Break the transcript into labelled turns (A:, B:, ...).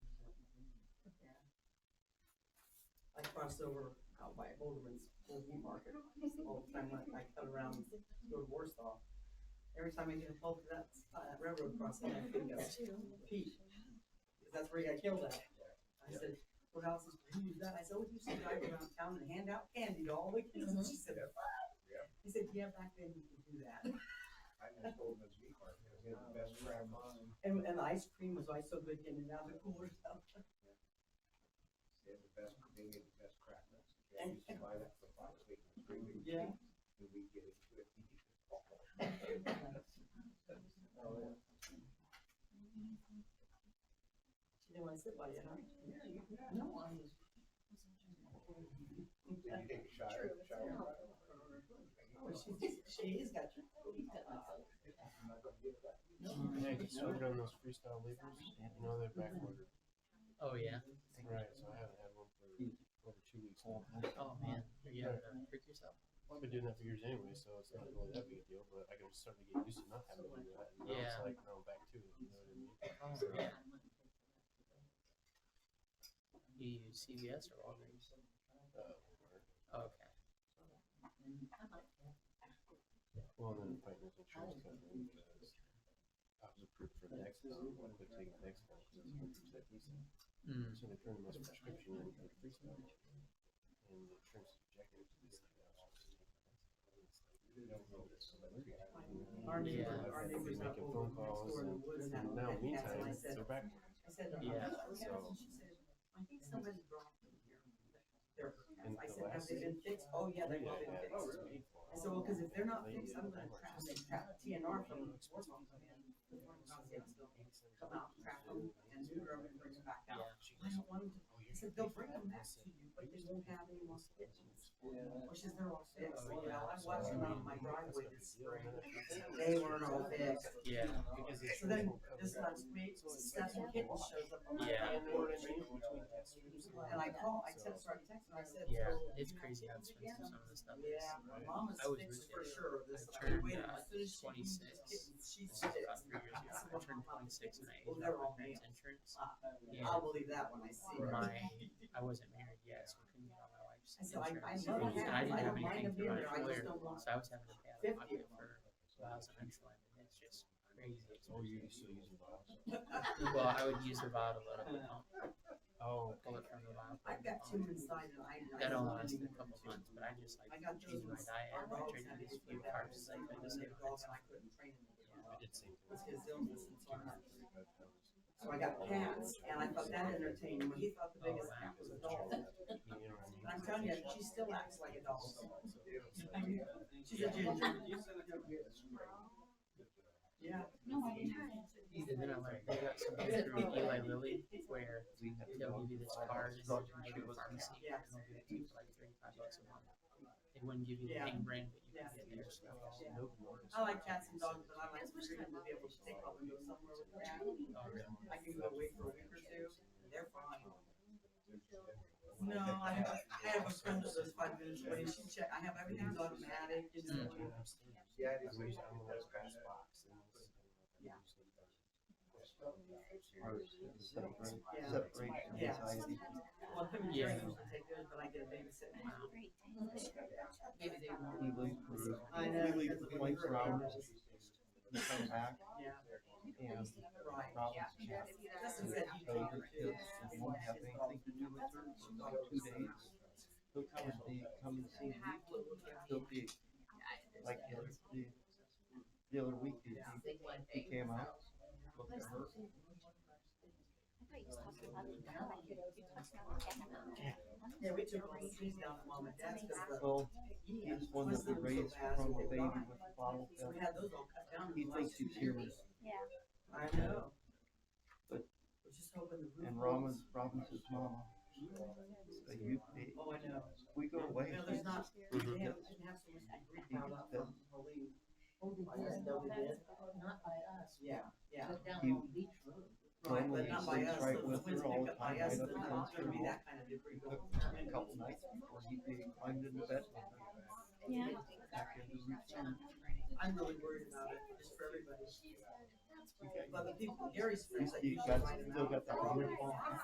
A: crossed over out by Alderman's old meat market all the time, when I cut around, go to Warsaw. Every time I get involved with that, uh, that railroad crossing, I think of Pete, 'cause that's where he got killed at. I said, what else is, who used that? I said, oh, he used to drive around town and hand out candy to all the kids, she said, what?
B: Mm-hmm. Yeah.
A: He said, yeah, back then you could do that.
B: I just told him it's meat market, he had the best crab mine,
A: And, and the ice cream was always so good in and out of the cooler stuff.
B: he had the best, they had the best crab nuts. And you buy that for five, six, three weeks.
A: Yeah.
B: And we get it to it.
A: She didn't want to sit by you, huh?
B: Yeah, you can.
A: No, I was.
B: Did you take a shower, shower?
A: Oh, she's, she's got your, he's got my phone.
B: I'm not gonna give it back.
C: Yeah, you started on those freestyle levers, you know, they're backordered.
D: Oh, yeah.
C: Right, so I haven't had one for over two weeks. now.
D: Oh, man. You gotta freak yourself.
C: Well, I've been doing that for years anyway, so it's not really that big a deal, but I can start to get used to not having to do that. And now it's
D: Yeah.
C: like, now I'm back to it, you know what I mean? Uh,
D: Oh, yeah. You use CVS or Walgreens? Oh,
C: Uh,
D: Okay.
C: Well, and then fighting with insurance company, because I was approved for Dexcom, I quit taking Dexcom, because it's hundred percent decent.
D: Mm.
C: So they turned my prescription in for freestyle. And the insurance objective is this.
B: You don't know this, so that's what you have.
A: Our neighbor,
D: Yeah.
A: our neighbor's not
C: Making
A: over
C: phone
A: next
C: calls
A: door in the woods and that.
C: And now,
A: that gas, and
C: meantime,
A: I said,
C: they're back.
A: I said, "Uh,
D: Yeah.
A: so- she said, I think somebody dropped them here. They're,
C: And
A: I
C: the
A: said, have
C: last
A: they been fixed? Oh, yeah, they've all been fixed. I said, well, cause if they're not fixed, I'm gonna trap, they trap TNR from the sports home, come in. the sports home, yeah, so Come out, trap them and do them and bring them back out. I don't want them to, I said, they'll bring them back to you, but you won't have any more stitches. Which is their all fixed, you know, I watched them out in my driveway this spring. They weren't all fixed.
D: Yeah.
C: Because the
A: So then,
C: insurance won't cover
A: this
C: that.
A: last week, Stephen Kitten shows up on my
D: Yeah.
A: van door and
C: Between test strips
A: and I called, I text her, I texted her, I said,
D: Yeah.
A: so.
D: It's crazy how expensive some of this stuff is.
A: Yeah, my mom is
D: I was
A: fixed
D: really-
A: for sure of this,
D: I
A: I
D: turned,
A: waited,
D: uh,
A: as soon as she
D: 26.
A: uses kittens, she's
D: About
A: fixed.
D: three years ago, I turned 26 and I
A: Well,
D: aged
A: they're
D: out
A: all
D: my parents'
A: male.
D: insurance.
A: Uh, I'll believe that when I see it.
D: My, I wasn't married yet, so I couldn't get on my wife's
A: I said, I, I
D: insurance.
A: know
C: I
A: what happens,
D: And I didn't
A: I
D: have
A: don't mind
D: anything
A: them
D: through
A: being
D: my
A: there, I just
D: employer,
A: don't want.
D: so I was having to pay out of
A: 50
D: pocket
A: of them.
D: for miles and insulin, and it's just crazy.
C: Oh, you
D: expensive.
C: still using bottles?
D: Well, I would use the bottle, but I would pump,
C: Oh,
D: pull it from the bottle. Oh,
A: I've got two inside and I. I
D: That
A: don't
D: only lasted
A: need
D: a couple
A: two.
D: months, but I just like
A: I got
D: changed my
A: those-
D: diet.
A: Our
D: I
A: dogs
D: tried to
A: had
D: do as
A: issues
D: few
A: with that.
D: carbs as I could to
A: They
D: stay
A: were
D: on
A: dogs and I couldn't train them to
C: I
A: do
C: did same
A: it. It's
C: thing.
A: his illness and so on. So I got cats and I thought that entertained me. He thought the biggest
D: Oh,
A: cat was a dog. And I'm telling you, she still acts like a dog. She's a ginger. Yeah.
D: Either then I learned, they got something through Eli Lilly where they'll give you this card and then you go to the pharmacy and they'll give it to you for like thirty-five bucks a month. They wouldn't give you the
A: Yeah.
D: name brand, but you could get their stuff. Mm.
A: I like cats and dogs, but I like to treat them to be able to take off and go somewhere with a cat. I can go away for a week or two. They're fine. No, I have, I have a friend that lives five minutes away. She check, I have everything's automatic. It's
D: Mm.
B: Yeah,
C: I
B: it is.
C: wish I'm the
B: That's
C: worst
B: kind of-
C: box.
A: Yeah. Yeah.
C: Separation.
A: Yeah. Well, him and Jerry
D: Yeah.
A: usually take theirs, but I get a babysitter. Maybe they
E: We
A: won't.
E: leave for,
A: I know.
E: we leave for like four hours, we come back,
A: Yeah,
E: and
A: right.
E: Robin's chat.
A: Justin said he
E: So,
A: told her
E: the
A: too.
E: kids won't have anything to do with her for about two days. He'll come and be, come and see me, he'll be, like, the other- the, the other week, he, he came out, looked at her,
A: Yeah, we took all the trees down at mom and dad's because
E: well,
A: the.
E: he was one that they raised from the baby with the bottle
A: So we
E: fed.
A: had those all cut down. in
E: He
A: the
E: thinks
A: last
E: he's
A: few
E: hearing,
A: I know.
E: But-
A: We're just hoping the roof.
E: and
A: holds.
E: Robin's, Robin's his mama. So you,
A: Oh, I know.
E: we go away,
A: No, there's
E: he's
A: not, they have, they have so much debris piled up from Helene.
F: Not by us.
A: Yeah, yeah.
F: But down
E: You-
F: on Beach Road.
A: Right, but not by
E: Normally
A: us,
E: he sleeps right
A: so the
E: with
A: winds
E: her all
A: pick
E: the
A: up by
E: time,
A: us,
E: right
A: and there's
E: up against
A: not gonna be
E: her
A: that kind of debris
E: took
A: going.
E: a couple nights before he big- climbed into bed.
G: Yeah.
E: Back into the routine.
A: I'm really worried about it, just for everybody,
E: He got-
A: but the people, Gary's friends, I
E: He
A: usually
E: got,
A: find them
E: still
A: out.
E: got that wonderful